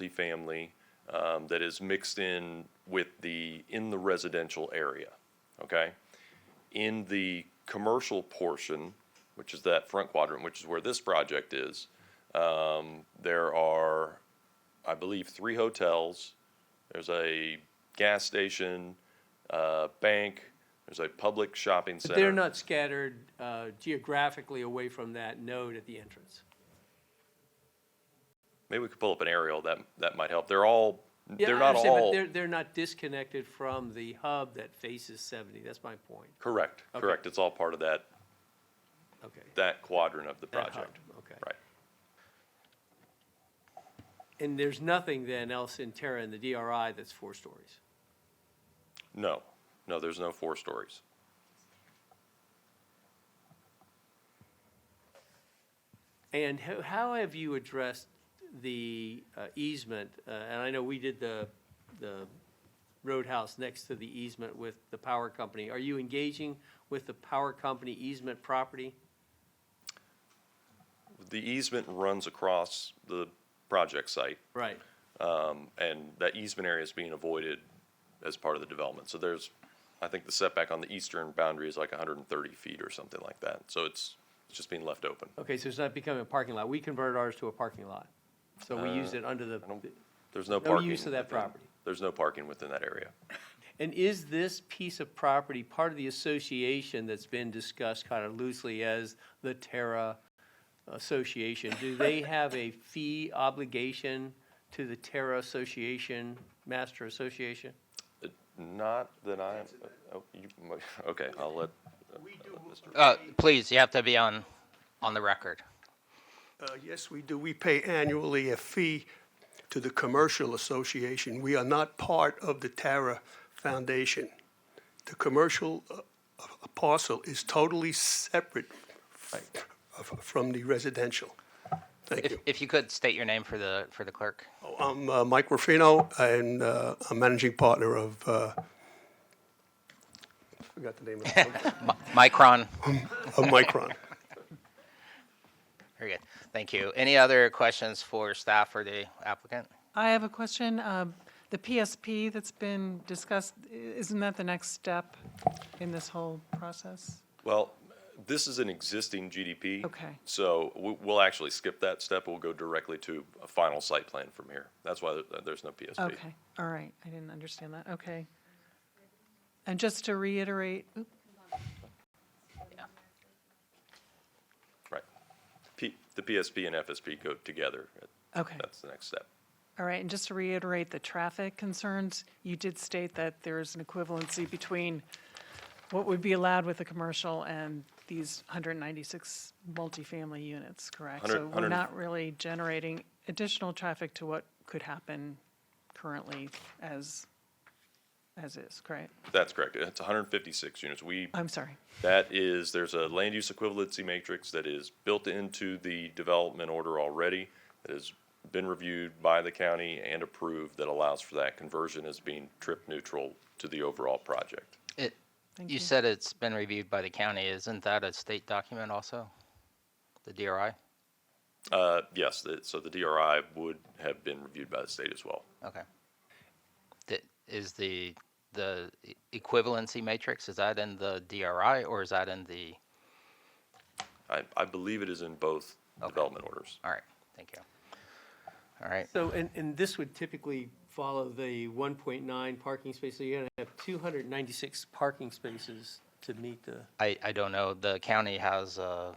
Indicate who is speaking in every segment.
Speaker 1: multifamily um, that is mixed in with the, in the residential area, okay? In the commercial portion, which is that front quadrant, which is where this project is, um, there are, I believe, three hotels. There's a gas station, uh, bank, there's a public shopping center.
Speaker 2: But they're not scattered uh, geographically away from that node at the entrance.
Speaker 1: Maybe we could pull up an aerial, that, that might help. They're all,
Speaker 2: Yeah,
Speaker 1: they're
Speaker 2: I
Speaker 1: not
Speaker 2: understand, but
Speaker 1: all,
Speaker 2: They're, they're not disconnected from the hub that faces 70, that's my point,
Speaker 1: correct,
Speaker 2: Okay.
Speaker 1: correct. It's all part of that,
Speaker 2: okay.
Speaker 1: that quadrant of the
Speaker 2: that hub,
Speaker 1: project.
Speaker 2: Okay.
Speaker 1: Right.
Speaker 2: And there's nothing then else in Terra in the DRI that's four stories?
Speaker 1: No, no, there's no four stories.
Speaker 2: And ho- how have you addressed the uh, easement? Uh, And I know we did the, the roadhouse next to the easement with the power company. Are you engaging with the power company easement property?
Speaker 1: The easement runs across the project site,
Speaker 2: Right.
Speaker 1: um, and that easement area is being avoided as part of the development. So there's, I think the setback on the eastern boundary is like hundred and thirty feet or something like that. So it's, it's just being left open.
Speaker 2: Okay, so it's not becoming a parking lot. We converted ours to a parking lot. So we used it under the,
Speaker 1: Uh, I don't, there's no
Speaker 2: no
Speaker 1: parking.
Speaker 2: use of that
Speaker 1: within-
Speaker 2: property.
Speaker 1: There's no parking within that area.
Speaker 2: And is this piece of property part of the association that's been discussed kind of loosely as the Terra Association? Do they have a fee obligation to the Terra Association, Master Association?
Speaker 1: Uh, Not that I, oh, you, okay, I'll let,
Speaker 3: We do,
Speaker 4: Uh, please, you have to be on, on the record.
Speaker 3: uh, yes, we do. We pay annually a fee to the Commercial Association. We are not part of the Tara Foundation. The commercial uh, uh, parcel is totally separate f- uh, from the residential. Thank
Speaker 4: If,
Speaker 3: you.
Speaker 4: if you could state your name for the, for the clerk.
Speaker 3: Oh, I'm uh, Mike Ruffino, and uh, I'm managing partner of, uh, I forgot the name of the company,
Speaker 4: Micron.
Speaker 3: of Micron.
Speaker 4: Very good. Thank you. Any other questions for staff or the applicant?
Speaker 5: I have a question. Um, The PSP that's been discussed, i- isn't that the next step in this whole process?
Speaker 1: well, this is an existing GDP.
Speaker 5: Okay.
Speaker 1: So we, we'll actually skip that step. We'll go directly to a final site plan from here. That's why there- there's no PSP.
Speaker 5: Okay, all right, I didn't understand that, okay. And just to reiterate, oop,
Speaker 1: Right. P, the PSP and FSP go together.
Speaker 5: okay,
Speaker 1: That's the next step.
Speaker 5: all right, and just to reiterate the traffic concerns, you did state that there is an equivalency between what would be allowed with the commercial and these 196 multifamily units, correct?
Speaker 1: Hundred-
Speaker 5: So
Speaker 1: hundred
Speaker 5: we're
Speaker 1: and-
Speaker 5: not really generating additional traffic to what could happen currently as, as is, correct?
Speaker 1: That's correct. It's 156 units. We,
Speaker 5: I'm sorry.
Speaker 1: that is, there's a land use equivalency matrix that is built into the development order already, that has been reviewed by the county and approved, that allows for that conversion as being trip neutral to the overall project.
Speaker 4: It,
Speaker 5: Thank
Speaker 4: you
Speaker 5: you.
Speaker 4: said it's been reviewed by the county. Isn't that a state document also? The DRI?
Speaker 1: Uh, Yes, that- so the DRI would have been reviewed by the state as well.
Speaker 4: Okay. That, is the, the e- equivalency matrix, is that in the DRI or is that in the,
Speaker 1: I, I believe it is in both development orders.
Speaker 4: all right, thank you. All right,
Speaker 2: So, and, and this would typically follow the 1.9 parking space, so you're going to have 296 parking spaces to meet the.
Speaker 4: I, I don't know. The county has, uh,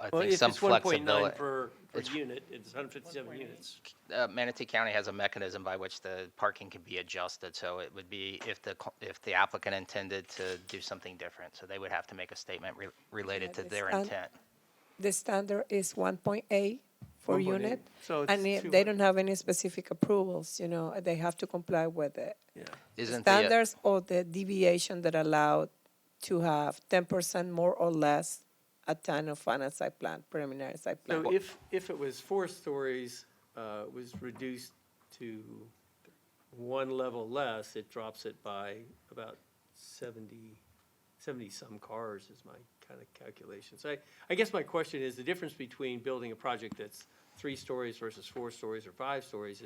Speaker 4: I
Speaker 2: Well,
Speaker 4: think
Speaker 2: if
Speaker 4: some
Speaker 2: it's 1.9
Speaker 4: flexibility.
Speaker 2: per, per unit, it's 157 units.
Speaker 4: uh, Manatee County has a mechanism by which the parking can be adjusted, so it would be if the, co- if the applicant intended to do something different, so they would have to make a statement re- related to
Speaker 6: Yeah,
Speaker 4: their
Speaker 6: it's un-
Speaker 4: intent.
Speaker 6: The standard is 1.8 for
Speaker 2: 1.8.
Speaker 6: unit.
Speaker 2: So
Speaker 6: And
Speaker 2: it's
Speaker 6: if
Speaker 2: two-
Speaker 6: they don't have any specific approvals, you know, they have to comply with the
Speaker 2: Yeah.
Speaker 4: Isn't the, uh,
Speaker 6: standards or the deviation that allowed to have 10% more or less at time of final site plan, preliminary site plan.
Speaker 2: So if, if it was four stories, uh, it was reduced to one level less, it drops it by about 70, 70-some cars is my kind of calculation. So I, I guess my question is, the difference between building a project that's three stories versus four stories or five stories